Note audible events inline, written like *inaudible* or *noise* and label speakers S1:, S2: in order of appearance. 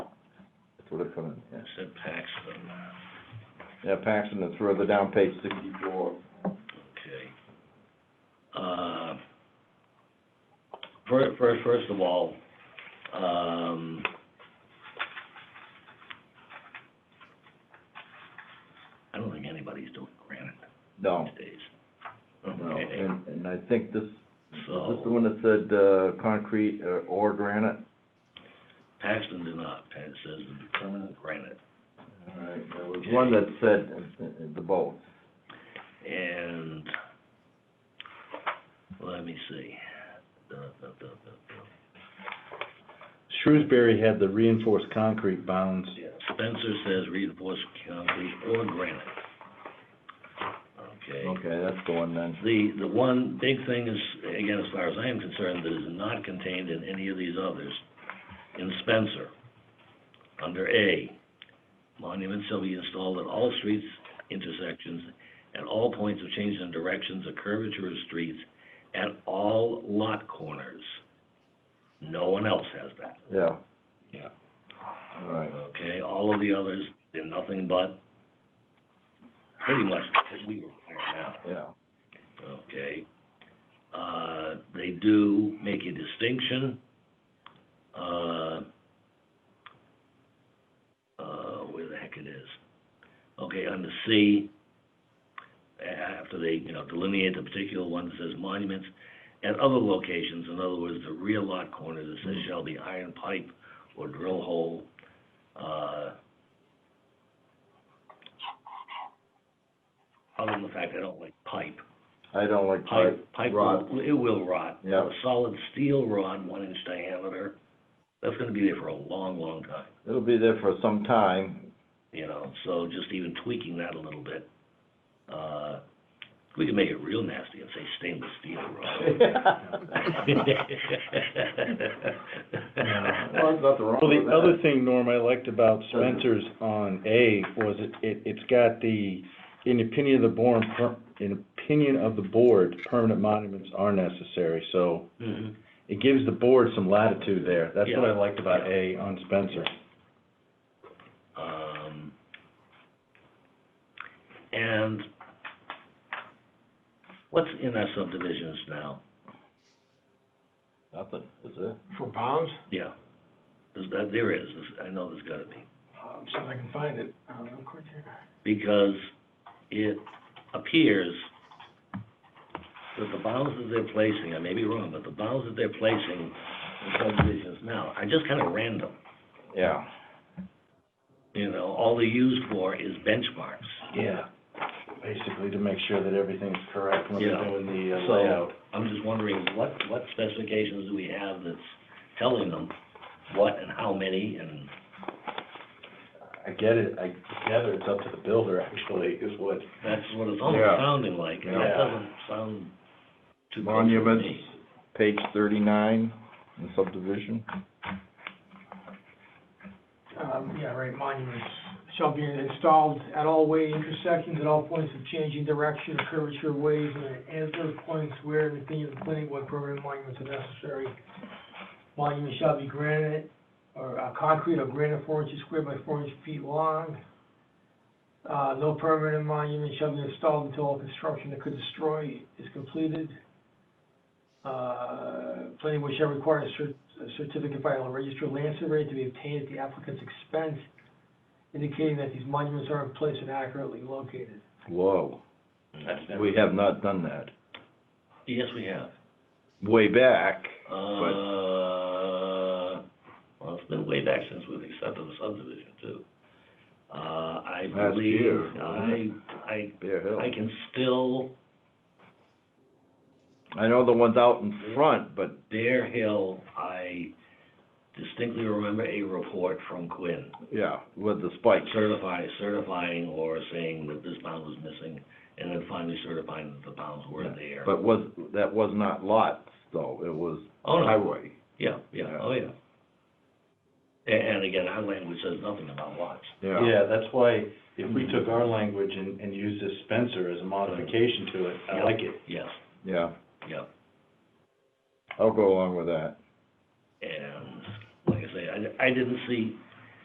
S1: they're coming, yeah.
S2: said Paxton,
S1: Yeah, Paxton, it's further down page sixty-four.
S2: okay. Uh, fir- first, first of all, um, I don't think anybody's doing granite
S1: No,
S2: these days.
S1: no,
S2: Okay,
S1: and, and I think this, is this the
S2: so
S1: one that said, uh, concrete or- or granite?
S2: Paxton did not, Paxton says the permanent granite.
S1: All right, there was one that said, uh, uh, the both.
S2: And, let me see. Da, da, da, da, da.
S3: Shrewsbury had the reinforced concrete bounds.
S2: Yeah, Spencer says reinforced concrete or granite. Okay.
S1: Okay, that's the one then.
S2: The, the one big thing is, again, as far as I am concerned, that is not contained in any of these others, in Spencer, under A, monuments shall be installed at all streets, intersections, at all points of change in directions or curvature of streets, at all lot corners. No one else has that.
S1: Yeah.
S2: Yeah.
S1: All right,
S2: Okay, all of the others, they're nothing but pretty much what we require now,
S1: yeah,
S2: okay? Uh, they do make a distinction, uh, uh, where the heck it is. Okay, under C, a- after they, you know, delineate the particular one that says monuments, at other locations, in other words, the rear lot corner that says shall be iron pipe or drill hole, uh, other than the fact I don't like pipe.
S1: I don't like pipe.
S2: Pipe, pipe
S1: rod.
S2: will, it will rot.
S1: Yeah.
S2: A solid steel rod, one inch diameter, that's gonna be there for a long, long time,
S1: It'll be there for some time,
S2: you know, so just even tweaking that a little bit. Uh, we can make it real nasty and say stainless steel
S1: *laughs*
S2: rod. *laughs*
S1: Well, there's nothing wrong
S3: Well,
S1: with
S3: the
S1: that.
S3: other thing, Norm, I liked about Spencer's on A was it, it, it's got the, in opinion of the board, per- in opinion of the board, permanent monuments are necessary, so
S2: Mhm.
S3: it gives the board some latitude there. That's what I
S2: Yeah.
S3: liked about A on Spencer.
S2: Um, and what's in our subdivisions now?
S1: Nothing, is it?
S4: For bounds?
S2: Yeah, there's, that, there is, There's- I know there's gotta be,
S4: Um, see if I can find it, uh, real quick here.
S2: because it appears that the bounds that they're placing, I may be wrong, but the bounds that they're placing in subdivisions now are just kinda random.
S1: Yeah,
S2: You know, all they're used for is benchmarks.
S3: Yeah. Basically to make sure that everything's correct when
S2: Yeah.
S3: they're doing the uh,
S2: So-
S3: layout.
S2: I'm just wondering, what, what specifications do we have that's telling them what and how many and,
S3: I get it, I gather it's up to the builder actually is what.
S2: that's what it's almost
S1: Yeah.
S2: sounding like, and
S3: Yeah.
S2: that doesn't sound too close to me.
S1: monuments, page thirty-nine, in subdivision.
S4: Um, yeah, right, monuments shall be installed at all way intersections, at all points of changing direction, or curvature of ways, and at those points where in the opinion of the planning board program monuments are necessary. Monuments shall be granite, or, uh, concrete or granite four inches square by four inch feet long. Uh, no permanent monument shall be installed until all construction that could destroy is completed. Uh, planning board shall require a cer- a certificate by a registered land surveyor to be obtained at the applicant's expense, indicating that these monuments are in place and accurately located.
S1: Whoa,
S2: That's never-
S1: we have not done that.
S2: Yes, we have.
S1: Way back,
S2: Uh, well, it's been way back since we've accepted the subdivision too. Uh, I
S1: Last year,
S2: believe, I,
S1: wasn't
S2: I,
S1: Bear Hill.
S2: I can still,
S1: I know the ones out in front, but,
S2: Bear Hill, I distinctly remember a report from Quinn.
S1: yeah, with the spikes.
S2: Certify, certifying or saying that this bound was missing, and then finally certifying that the bounds were
S1: Yeah,
S2: there.
S1: But was, that was not lots, though, it was
S2: Oh, no.
S1: highway.
S2: Yeah, yeah, oh, yeah. A- And again, our language says nothing about lots.
S3: Yeah, that's why if we took our language and, and used this Spencer as a modification to it, I like it.
S2: Yes,
S1: Yeah,
S2: yeah.
S1: I'll go along with that.
S2: And like I say, I, I didn't see